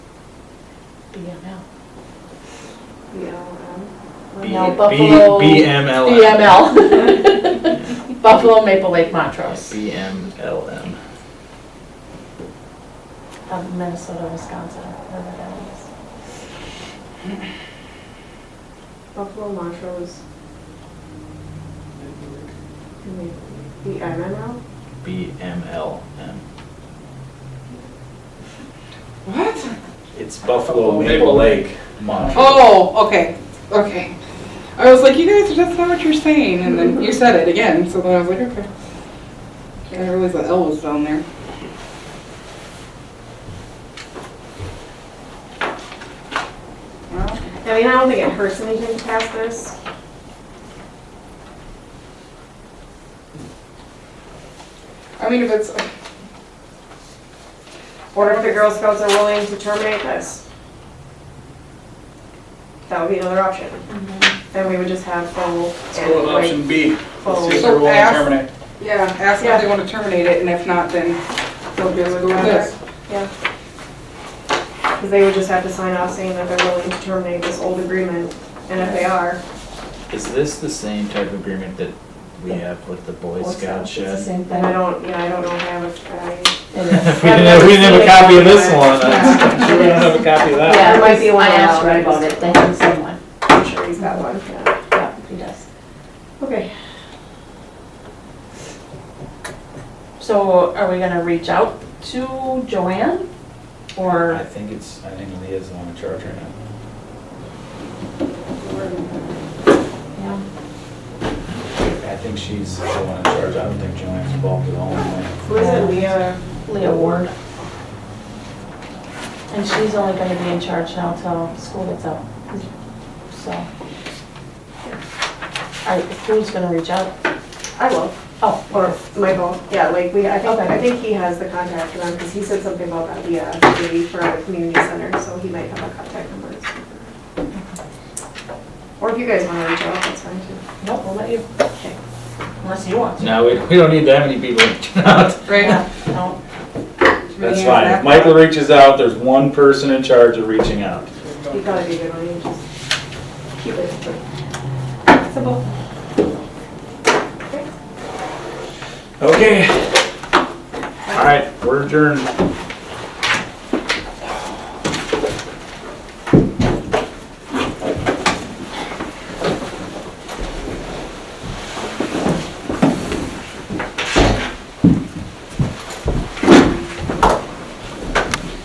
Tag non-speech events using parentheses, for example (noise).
BML. B- No, B- Buffalo- BMLM. (laughs) BML. Buffalo Maple Lake Montrose BMLM. of Um, Minnesota, Wisconsin, wherever that is. Buffalo Montrose. The MML? BMLM. What? It's Buffalo Maple Maple Lake Montrose. Oh, okay, okay. I was like, you guys, that's not what you're saying, and then you said it again, so then I was like, okay. I didn't realize the L was down there. Well, I mean, I don't think it hurts anything to pass this. I mean, if it's, Or if the Girl Scouts are willing to terminate this. That would be another option. Then we would just have full. and, Go with like, option B. Full. Let's see if So they're willing to pass. terminate. yeah, ask if they want to terminate it, and if not, then They'll do just it go with this. Yeah. Because they would just have to sign off saying that they're willing to terminate this old agreement, and if they are, Oh. Is this the same type of agreement that we have with the Boy Boy Scout Scouts, It's the shed? same then I thing. don't, yeah, I don't know how much I. It is. (laughs) We didn't have, we didn't have a copy of this (laughs) one. I'm sure we don't have a copy of that. Yeah, There might be one I asked out. Ray about it, they have someone, I'm sure he's got one, yeah. yeah, he does. Okay. So are we gonna reach out to Joanne? I Or, think it's, I think Leah's the one in charge right now. yeah, I think she's the one in charge. I don't think Joanne's involved at all. Who is it, Leah? Leah Ward? And she's only gonna be in charge now till school gets out, so. All right, who's gonna reach out? I will. Oh, Or Michael, yeah, like, we, I think, Okay. I think he has the contact number, because he said something about that, yeah, maybe for a community center, so he might have a contact number. Or if you guys want to reach out, that's fine too. no, we'll let you, okay, unless you want to. No, we, we don't need that many people reaching out. Right? Yeah, No, That's fine. If Michael reaches out, there's one person in charge of reaching out. You gotta be good on it, just keep it simple. Okay. All right, we're adjourned.